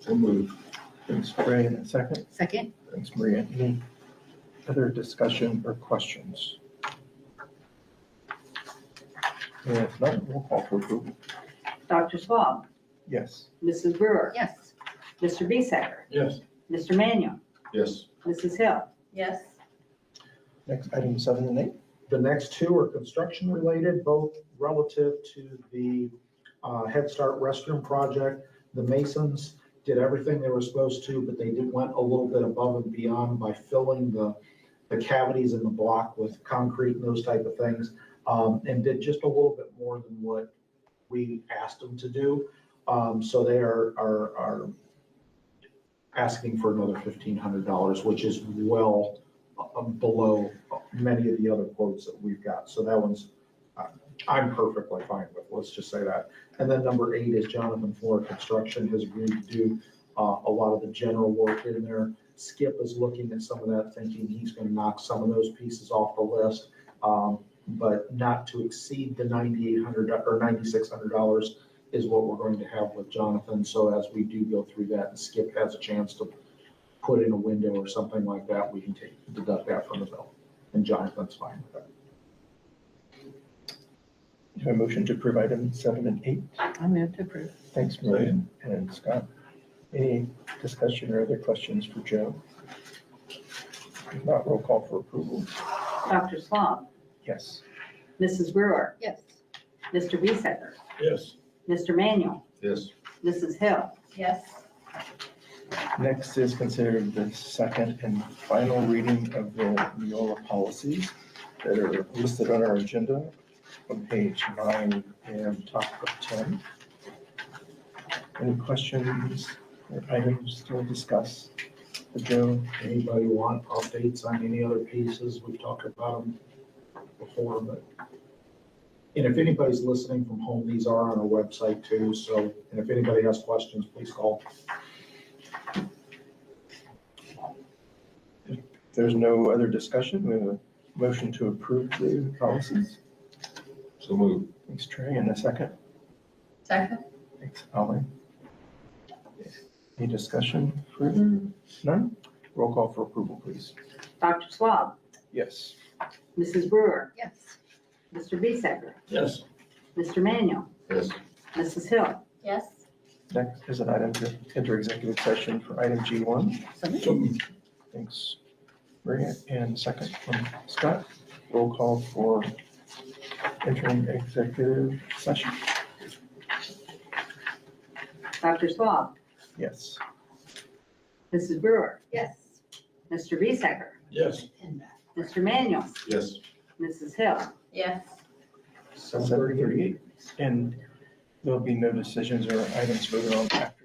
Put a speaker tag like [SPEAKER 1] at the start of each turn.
[SPEAKER 1] So moved. Thanks,
[SPEAKER 2] Ray, and a second.
[SPEAKER 3] Second?
[SPEAKER 2] Thanks, Maria. Any other discussion or questions? And if not, we'll call for approval.
[SPEAKER 4] Dr. Swab,
[SPEAKER 2] Yes.
[SPEAKER 4] Mrs. Brewer,
[SPEAKER 3] Yes.
[SPEAKER 4] Mr. Bisecker,
[SPEAKER 1] Yes.
[SPEAKER 4] Mr. Manuel,
[SPEAKER 1] Yes.
[SPEAKER 4] Mrs. Hill,
[SPEAKER 3] Yes.
[SPEAKER 2] Next, item seven and eight.
[SPEAKER 5] The next two are construction related, both relative to the uh, Head Start restroom project. The Masons did everything they were supposed to, but they did went a little bit above and beyond by filling the, the cavities in the block with concrete and those type of things. um, And did just a little bit more than what we asked them to do. Um, So they are, are, are asking for another fifteen hundred dollars, which is well uh, below many of the other quotes that we've got. So that one's, uh, I'm perfectly fine with, let's just say that. And then number eight is Jonathan Floor Construction has agreed to do uh, a lot of the general work in there. Skip is looking at some of that, thinking he's going to knock some of those pieces off the list, um, but not to exceed the $9,800 or $9,600 is what we're going to have with Jonathan. So as we do go through that, and Skip has a chance to put in a window or something like that, we can take, deduct that from the bill. And Jonathan's fine with that.
[SPEAKER 2] Do I have a motion to approve item seven and eight?
[SPEAKER 3] I move to approve.
[SPEAKER 2] Thanks, Maria and Scott. Any discussion or other questions for Joe? If not, roll call for approval.
[SPEAKER 4] Dr. Swab,
[SPEAKER 2] Yes.
[SPEAKER 4] Mrs. Brewer,
[SPEAKER 3] Yes.
[SPEAKER 4] Mr. Bisecker,
[SPEAKER 1] Yes.
[SPEAKER 4] Mr. Manuel,
[SPEAKER 1] Yes.
[SPEAKER 4] Mrs. Hill,
[SPEAKER 3] Yes.
[SPEAKER 2] Next is considered the second and final reading of the Neola policies that are listed on our agenda on page nine and top of ten. Any questions or items to discuss for Joe?
[SPEAKER 5] Anybody want updates on any other pieces? We've talked about them before, but. And if anybody's listening from home, these are on our website too. So, and if anybody has questions, please call.
[SPEAKER 2] If there's no other discussion, we have a motion to approve the policies.
[SPEAKER 1] So moved.
[SPEAKER 2] Thanks, Trey, and a second.
[SPEAKER 3] Second?
[SPEAKER 2] Thanks, Holly. Any discussion further? None? Roll call for approval, please.
[SPEAKER 4] Dr. Swab,
[SPEAKER 2] Yes.
[SPEAKER 4] Mrs. Brewer,
[SPEAKER 3] Yes.
[SPEAKER 4] Mr. Bisecker,
[SPEAKER 1] Yes.
[SPEAKER 4] Mr. Manuel,
[SPEAKER 1] Yes.
[SPEAKER 4] Mrs. Hill,
[SPEAKER 3] Yes.
[SPEAKER 2] Next is an item to enter executive session for item G1.
[SPEAKER 3] So moved.
[SPEAKER 1] So moved.
[SPEAKER 2] Thanks, Maria. And second from Scott. Roll call for entering executive session.
[SPEAKER 4] Dr. Swab,
[SPEAKER 2] Yes.
[SPEAKER 4] Mrs. Brewer,
[SPEAKER 3] Yes.
[SPEAKER 4] Mr. Bisecker,
[SPEAKER 1] Yes.
[SPEAKER 3] uh,
[SPEAKER 4] Mr. Manuel,
[SPEAKER 1] Yes.
[SPEAKER 4] Mrs. Hill,
[SPEAKER 3] Yes.
[SPEAKER 2] Seven thirty-eight. And there'll be no decisions or items voted on after